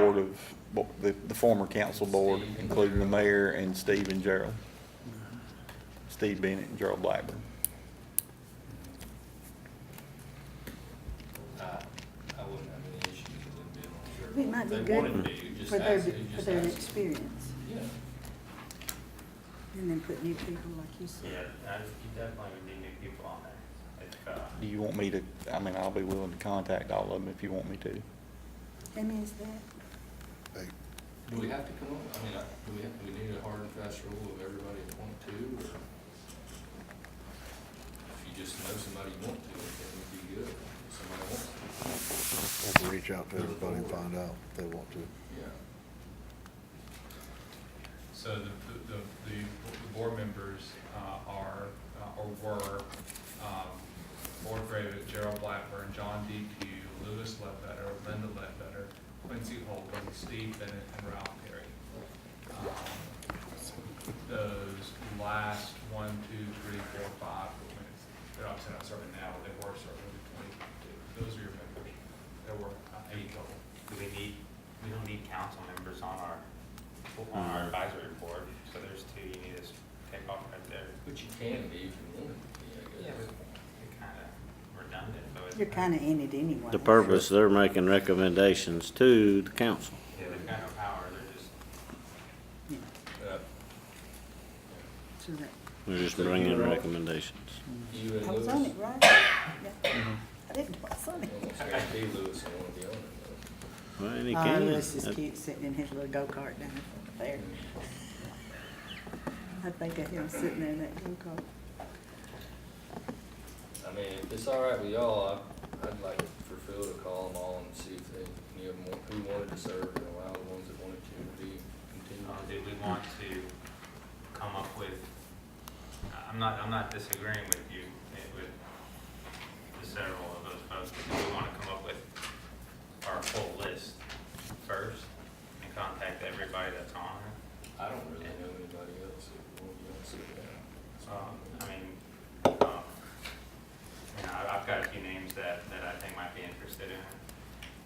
board of, bo- the, the former council board, including the mayor and Steve and Gerald. Steve Bennett and Gerald Blackburn. I, I wouldn't have any issues with them It being on might the be board. They wanted good to, just for their, ask, for just their ask. experience, Yeah. and then put new people like you said. Yeah, I just keep definitely would need new people on there. If, uh, Do you want me to, I mean, I'll be willing to contact all of them if you want me to. That means that, Do we have to come up, I mean, I- do we have, do we need a hard and fast rule of everybody at point two, or? If you just know somebody you want to, that would be good, if somebody wants to, Have to reach out to everybody and find out if they want to. yeah. So the, the, the the board members uh, are, uh, or were, um, Board Gravitt, Gerald Blackburn, John DQ, Lewis Ledbetter, Linda Ledbetter, Quincy Holcomb, Steve Bennett, and Ralph Perry. Um, Those last one, two, three, four, five, I mean, it's- they're obviously not serving now, but they were serving in twenty-two. Those are your members. There were uh, eight total. do we need, we don't need council members on our, on our advisory board, so there's two you need to s- take off right there. But you can be if you want to be, I guess. You're kind of redundant, though. it's- you're kinda in it anyway. The purpose, they're making recommendations to the council. Yeah, they've got no power, they're just, Yeah, Uh, So that, They're just bringing recommendations. You and I was on Lewis, Mm-hmm. it, right? Yeah. I didn't, I was on it. almost guarantee Lewis will want to be on it, though. Well, and he Oh, can. Uh, Lewis is That- cute sitting in his little go-kart down there. I think of him sitting there in that go-kart. I mean, if it's all right with y'all, I, I'd like for Phil to call them all and see if they, any of them, want- who wanted to serve and allow the ones that wanted to be uh, continued. do we want to come up with, I- I'm not, I'm not disagreeing with you, eh, with the several of those folks, but do we want to come up with our full list first and contact everybody that's on it? I don't really know anybody else that will be on it. Um, I mean, um, you know, I- I've got a few names that, that I think might be interested in,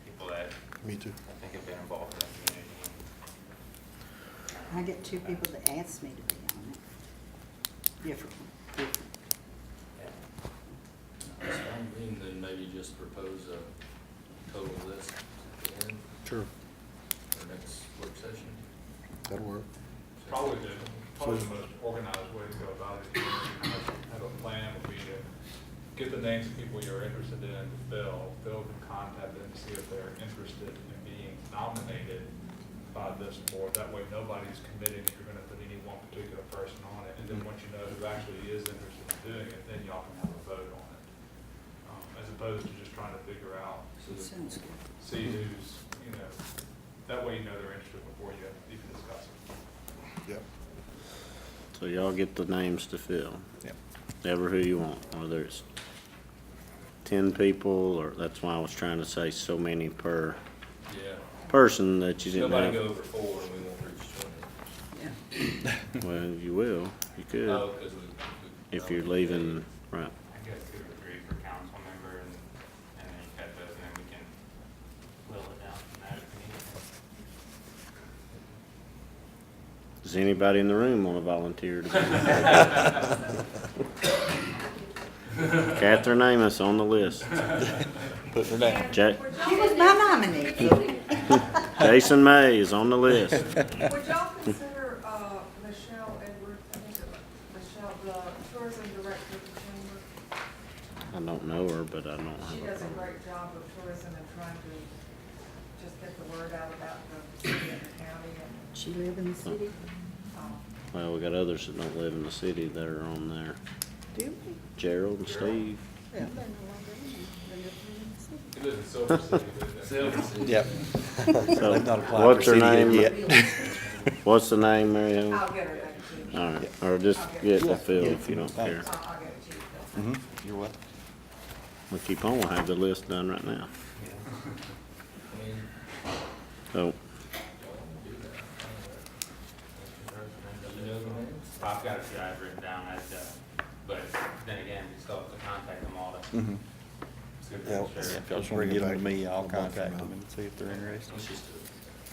people that Me too. I think have been involved in the community. I get two people that ask me to be on it. Different, different. And then maybe just propose a total list at the end, Sure. for next work session. That'll work. Probably the, probably the most organized way to go about it, is have a plan would be to get the names of people you're interested in, Bill, Bill can contact them, see if they're interested in being nominated by this board, that way nobody's committing if you're gonna put any one particular person on it, and then once you know who actually is interested in doing it, then y'all can have a vote on it. Um, As opposed to just trying to figure out, So the- Sounds good. see who's, you know, that way you know they're interested before you even discuss it. Yep. So y'all get the names to fill, Yep. ever who you want, whether it's ten people, or that's why I was trying to say so many per Yeah, person that you didn't nobody go have. over four and we won't reach twenty. Yeah. Well, you will, you Oh, could, 'cause we- we- if you're leaving, right. I got two or three for council member and, and then you got those, and then we can whittle it down from that if we need to. Does anybody in the room wanna volunteer to be? Catherine Amos on the list, Put her down. Ja- She was my nominee. Jason May is on the list. Would y'all consider, uh, Michelle Edward, I think it was Michelle, the tourism director of the chamber? I don't know her, but I don't have She a does a problem. great job of tourism and trying to just get the word out about the city and the county and, She live in the city? um, Well, we got others that don't live in the city that are on there. Do we? Gerald and Steve. Well, they're no longer in it. They live in the city. He lives in Silver City, but that's- Silver City. Yep. So, They've not applied what's for her city name? yet. What's the name, Mary Ellen? I'll get her back to you. All right, or just get the field if you don't care. I'll, I'll get it to you. That's Mhm. Mm-hmm. You're welcome. We keep on, we'll have the list done right now. I mean, So, y'all wanna do that, I don't know. You I've know the names? got a few I've written down, I'd, uh, but then again, we still have to contact them all to. Mhm. see if Yeah, they're sure. If y'all just want to Mm-hmm. Bring it get them to back. me, I'll I'll back them contact out. them and see if they're interested. Let's just do it.